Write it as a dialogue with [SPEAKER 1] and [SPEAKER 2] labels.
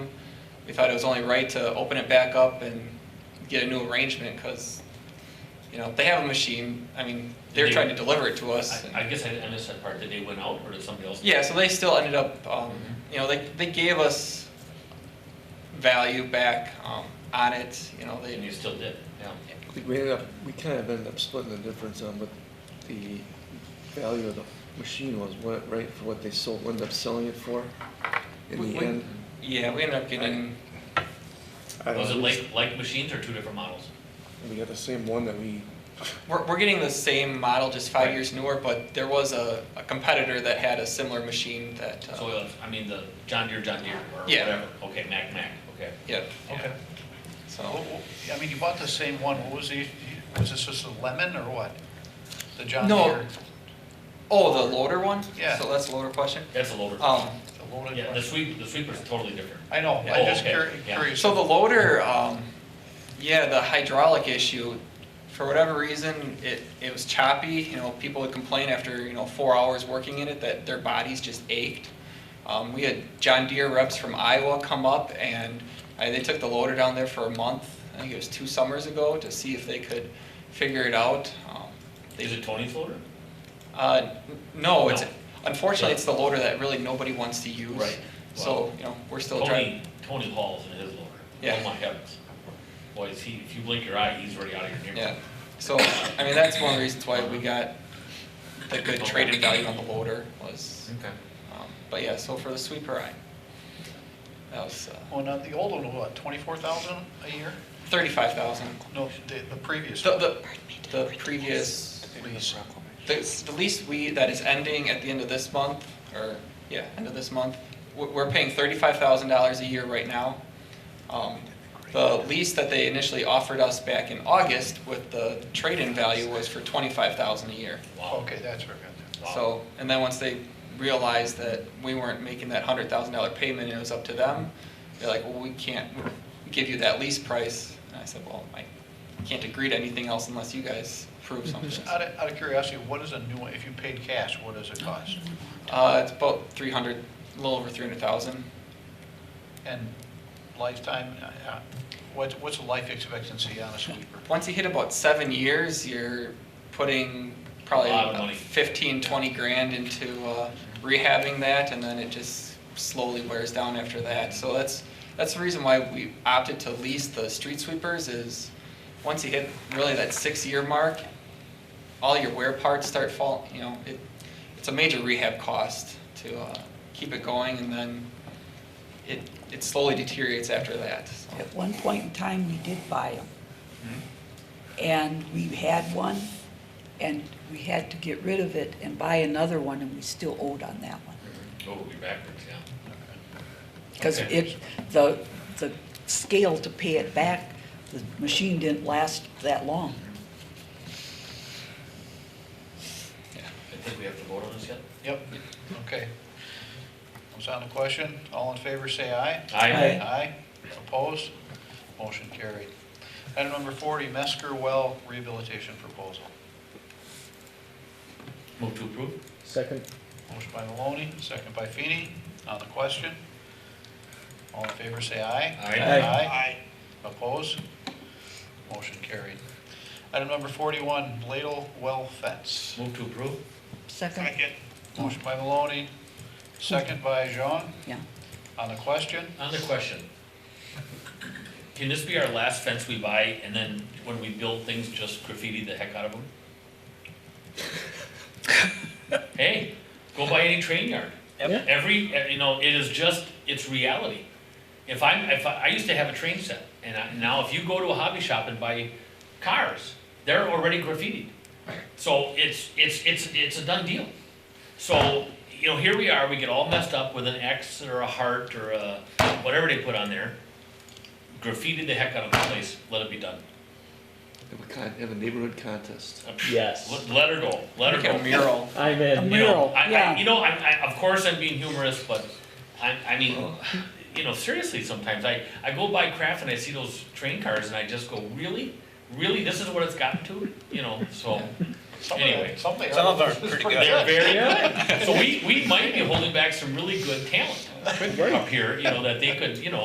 [SPEAKER 1] we thought it was only right to open it back up and get a new arrangement, because, you know, they have a machine, I mean, they're
[SPEAKER 2] Did they-
[SPEAKER 1] trying to deliver it to us. and-
[SPEAKER 2] I, I guess I didn't understand that part, did they win out or did somebody else?
[SPEAKER 1] Yeah, so they still ended up, um,
[SPEAKER 2] Mm-hmm.
[SPEAKER 1] you know, they, they gave us value back, um, on it, you know, they.
[SPEAKER 2] And you still did, yeah.
[SPEAKER 3] I think we ended up, we kind of ended up splitting the difference on what the value of the machine was, what, right, for what they sold, ended up selling it for in
[SPEAKER 1] we-
[SPEAKER 3] the
[SPEAKER 1] we-
[SPEAKER 3] end.
[SPEAKER 1] Yeah, we ended up getting,
[SPEAKER 3] I don't
[SPEAKER 2] Was it
[SPEAKER 3] know, we
[SPEAKER 2] like, like machines or two different models?
[SPEAKER 3] just- We got the same one that we,
[SPEAKER 1] we're, we're getting the same model, just five
[SPEAKER 2] Right.
[SPEAKER 1] years newer, but there was a, a competitor that had a similar machine that,
[SPEAKER 2] So,
[SPEAKER 1] uh,
[SPEAKER 2] uh, I mean, the John Deere, John Deere, or
[SPEAKER 1] Yeah.
[SPEAKER 2] whatever, okay, Mac, Mac, okay.
[SPEAKER 1] yeah,
[SPEAKER 2] Okay.
[SPEAKER 1] so.
[SPEAKER 4] I mean, you bought the same one, what was the, was this just a lemon or what? The John
[SPEAKER 1] No.
[SPEAKER 4] Deere,
[SPEAKER 1] Oh, the loader one?
[SPEAKER 4] Yeah.
[SPEAKER 1] So that's the loader question.
[SPEAKER 2] That's a loader.
[SPEAKER 1] Um,
[SPEAKER 4] the loaded
[SPEAKER 2] Yeah, the
[SPEAKER 4] one?
[SPEAKER 2] sweep, the sweeper's totally different.
[SPEAKER 4] I know,
[SPEAKER 2] Yeah.
[SPEAKER 4] I'm just
[SPEAKER 2] Oh, okay.
[SPEAKER 4] curi-
[SPEAKER 2] Yeah.
[SPEAKER 4] curious.
[SPEAKER 1] so the loader, um, yeah, the hydraulic issue, for whatever reason, it, it was choppy. You know, people would complain after, you know, four hours working in it that their bodies just ached. Um, we had John Deere reps from Iowa come up and uh, they took the loader down there for a month. I think it was two summers ago to see if they could figure it out. Um, they
[SPEAKER 2] Is it Tony's loader?
[SPEAKER 1] Uh, n- no, it's,
[SPEAKER 2] No.
[SPEAKER 1] unfortunately, it's the loader that really nobody wants to use.
[SPEAKER 2] Right.
[SPEAKER 1] So,
[SPEAKER 2] Wow.
[SPEAKER 1] you know, we're still
[SPEAKER 2] Tony,
[SPEAKER 1] trying.
[SPEAKER 2] Tony Hall's in his loader.
[SPEAKER 1] Yeah.
[SPEAKER 2] Oh my heavens. Boy, is he, if you blink your eye, he's already out of your
[SPEAKER 1] Yeah,
[SPEAKER 2] neighborhood.
[SPEAKER 1] so, I mean, that's one of the reasons why we got the good traded value on the loader was,
[SPEAKER 2] Okay.
[SPEAKER 1] um, but yeah, so for the sweeper, I, that was uh,
[SPEAKER 4] Well, now, the old one, was what, twenty-four thousand a year?
[SPEAKER 1] thirty-five thousand.
[SPEAKER 4] No, the, the previous
[SPEAKER 1] The,
[SPEAKER 4] one.
[SPEAKER 1] the, the previous,
[SPEAKER 4] Lease.
[SPEAKER 1] the, the lease we, that is ending at the end of this month, or, yeah, end of this month, we're, we're paying thirty-five thousand dollars a year right now. Um, The lease that they initially offered us back in August with the trade-in value was for twenty-five thousand a year.
[SPEAKER 2] Wow.
[SPEAKER 4] Okay, that's where I
[SPEAKER 2] Wow.
[SPEAKER 1] So, and then once they realized that we weren't making that hundred thousand dollar payment and it was up to them, they're like, well, we can't give you that lease price. And I said, well, I can't agree to anything else unless you guys prove something.
[SPEAKER 4] got that. Out of, out of curiosity, what is a new one, if you paid cash, what does it cost?
[SPEAKER 1] Uh, it's about three hundred, a little over three hundred thousand.
[SPEAKER 4] And lifetime, uh, uh, what, what's the life expectancy on a sweeper?
[SPEAKER 1] Once you hit about seven years, you're putting
[SPEAKER 2] A lot of money.
[SPEAKER 1] probably fifteen, twenty grand into uh, rehabbing that, and then it just slowly wears down after that. So that's, that's the reason why we opted to lease the street sweepers is, once you hit really that six-year mark, all your wear parts start fall, you know, it, it's a major rehab cost to uh, keep it going, and then it, it slowly deteriorates after that, so.
[SPEAKER 5] At one point in time, we did buy them. And we had one, and we had to get rid of it and buy another one, and we still owed on that one.
[SPEAKER 2] Oh, we're backwards, yeah.
[SPEAKER 5] Because
[SPEAKER 2] Okay.
[SPEAKER 5] it, the, the scale to pay it back, the machine didn't last that long.
[SPEAKER 2] I think we have to vote on this yet?
[SPEAKER 4] Yep, okay. Comes on the question, all in favor, say aye.
[SPEAKER 2] Aye.
[SPEAKER 4] Aye, opposed, motion carried. Item number 40, Mesker Well Rehabilitation Proposal.
[SPEAKER 2] Move to approve?
[SPEAKER 3] second,
[SPEAKER 4] Motion by Maloney, second by Feeney. on the question. All in favor, say aye.
[SPEAKER 2] Aye.
[SPEAKER 3] Aye.
[SPEAKER 4] Aye. Opposed, motion carried. Item number 41, Ladle Well Fence.
[SPEAKER 2] Move to approve?
[SPEAKER 5] Second?
[SPEAKER 4] Motion by Maloney, second by Jean,
[SPEAKER 5] Yeah.
[SPEAKER 4] on the question.
[SPEAKER 2] On the question, can this be our last fence we buy and then when we build things, just graffiti the heck out of them? Hey, go by any train yard.
[SPEAKER 3] Yep.
[SPEAKER 2] Every, eh, you know, it is just, it's reality. If I'm, if I, I used to have a train set and I, now if you go to a hobby shop and buy cars, they're already graffitied. So it's, it's, it's, it's a done deal. So, you know, here we are, we get all messed up with an X or a heart or a, whatever they put on there. Graffiti the heck out of the place, let it be done.
[SPEAKER 3] have a con, have a neighborhood contest.
[SPEAKER 6] Yes.
[SPEAKER 2] Let- Let her go, let her
[SPEAKER 1] Make
[SPEAKER 2] go.
[SPEAKER 1] a mural.
[SPEAKER 6] I'm
[SPEAKER 5] A
[SPEAKER 6] in.
[SPEAKER 2] You know,
[SPEAKER 5] mural,
[SPEAKER 2] I- I-
[SPEAKER 5] yeah.
[SPEAKER 2] You know, I, I, of course I'm being humorous, but I, I mean, you know, seriously, sometimes I, I go by craft and I see those train cars and I just go, really? Really, this is what it's gotten to, you know, so. Anyway.
[SPEAKER 4] Some of them
[SPEAKER 7] Some of
[SPEAKER 4] are
[SPEAKER 7] them are pretty good.
[SPEAKER 2] They're very good. So we, we might be holding back some really good talent up here, you know, that they could, you know,